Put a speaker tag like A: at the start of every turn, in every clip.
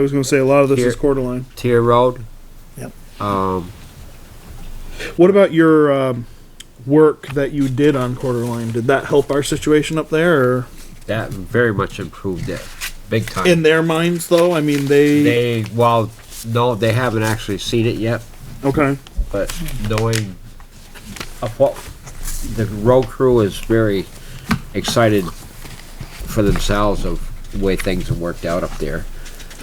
A: I was gonna say a lot of this is
B: Here.
A: Coeur d'Alene.
B: Tier Road.
C: Yep.
B: Um,
A: What about your um, work that you did on Coeur d'Alene? Did that help our situation up there? Or
B: that very much improved it, big time.
A: in their minds, though, I mean they,
B: they well, no, they haven't actually seen it yet,
A: okay,
B: but knowing of what the road crew is very excited for themselves of the way things have worked out up there.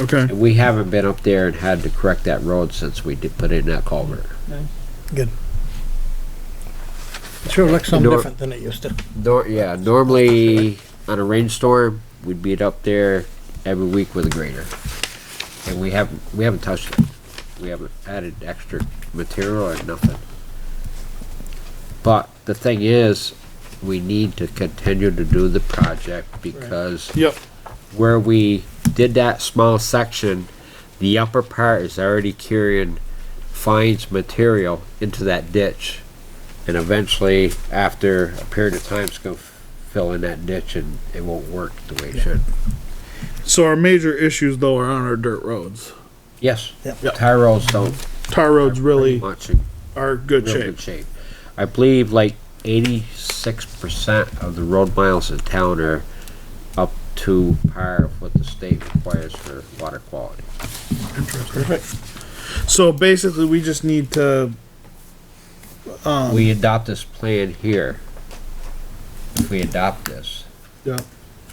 A: okay,
B: And we haven't been up there and had to correct that road since we did put in that culvert.
C: Good. Sure looks something
B: Door-
C: different than it used to.
B: Nor, yeah, normally on a rainstorm, we'd be up there every week with a grader. And we haven't, we haven't touched it. We haven't added extra material or nothing. But the thing is, we need to continue to do the project because
A: yep,
B: where we did that small section, the upper part is already carrying fines material into that ditch. And eventually, after a period of time, it's gonna fill in that ditch and it won't work the way it should.
A: So our major issues though are on our dirt roads.
B: Yes,
C: Yep.
B: tire roads don't
A: Tar roads really
B: much in
A: are good
B: real
A: shape.
B: good shape. I believe like eighty-six percent of the road miles in town are up to par of what the state requires for water quality.
A: So basically, we just need to
B: we adopt this plan here, if we adopt this,
A: yeah.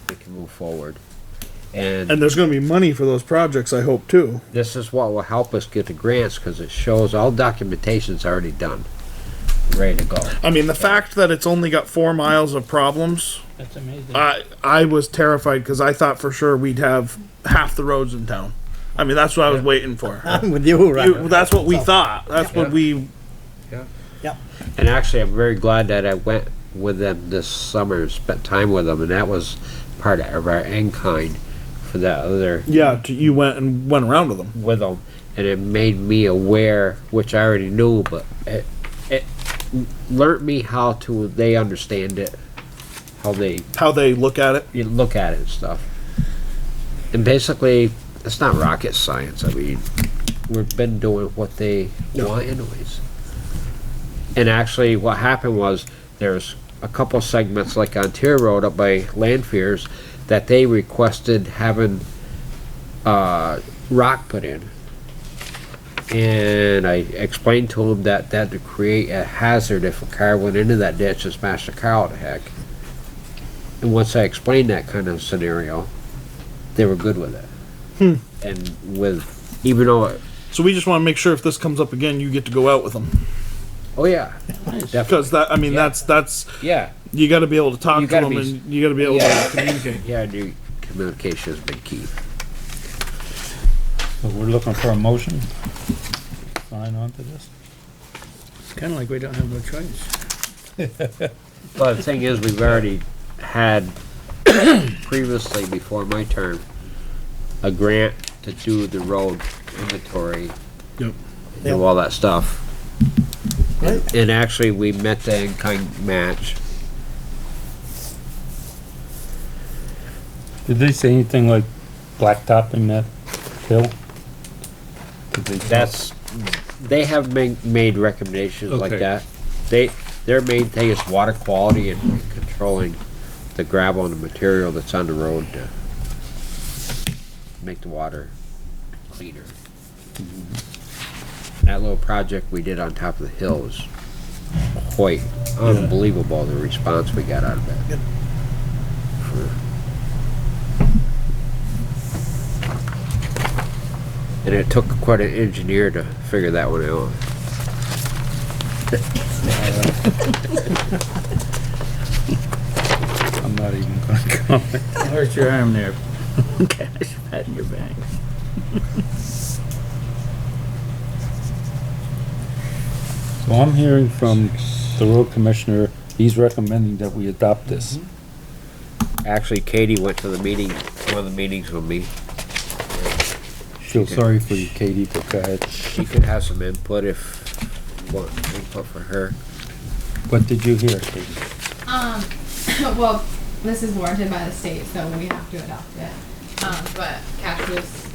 B: we can move forward. And
A: And there's going to be money for those projects, I hope too.
B: this is what will help us get the grants, cause it shows all documentation's already done, ready to go.
A: I mean, the fact that it's only got four miles of problems,
D: That's amazing.
A: I I was terrified because I thought for sure we'd have half the roads in town. I mean, that's what I was waiting for.
C: I'm with you,
A: You-
C: right?
A: that's what we thought. That's what
B: Yeah.
A: we.
B: And actually, I'm very glad that I went with them this summer, spent time with them, and that was part of our in-kind for that other,
A: Yeah, t- you went and went around with them.
B: with them. And it made me aware, which I already knew, but it, it learnt me how to, they understand it, how they
A: How they look at it.
B: you look at it and stuff. And basically, it's not rocket science. I mean, we've been doing what they want anyways. And actually, what happened was there's a couple segments like on Tier Road up by Landfears that they requested having uh, rock put in. And I explained to them that that to create a hazard if a car went into that ditch and smashed the car out of heck. And once I explained that kind of scenario, they were good with it.
A: Hmm.
B: And with, even though, it-
A: So we just want to make sure if this comes up again, you get to go out with them
B: oh yeah, definitely,
A: because that. I mean,
B: Yeah.
A: that's that's
B: yeah,
A: you got to be able to talk
B: You
A: to
B: gotta
A: them
B: be-
A: and you got to be able
B: Yeah.
A: to communicate.
B: yeah, I knew communication has been key.
D: So we're looking for a motion. Sign on to this.
C: Kinda like we don't have no choice.
B: Well, the thing is, we've already had previously, before my term, a grant to do the road inventory.
A: Yep.
C: Yep.
B: Do all that stuff.
C: Right.
B: And actually, we met the in-kind match.
D: Did they say anything like blacktopping that hill? Did they-
B: That's, they have made, made recommendations like
D: Okay.
B: that. They, their main thing is water quality and controlling the gravel and the material that's on the road to make the water cleaner. That little project we did on top of the hill was quite unbelievable, the response we got out of it.
C: Good.
B: For- And it took quite an engineer to figure that one out.
D: I'm not even gonna comment.
E: Hurt your arm there. Okay, pat your back.
D: So I'm hearing from the road commissioner, he's recommending that we adopt this.
E: Mm-hmm.
B: Actually, Katie went to the meeting, one of the meetings with me.
D: Feel sorry for you, Katie, but go ahead.
B: She could have some input if, what, input for her.
D: What did you hear, Katie?
F: Um, well, this is warranted by the state, so we have to adopt it. Um, but Cash was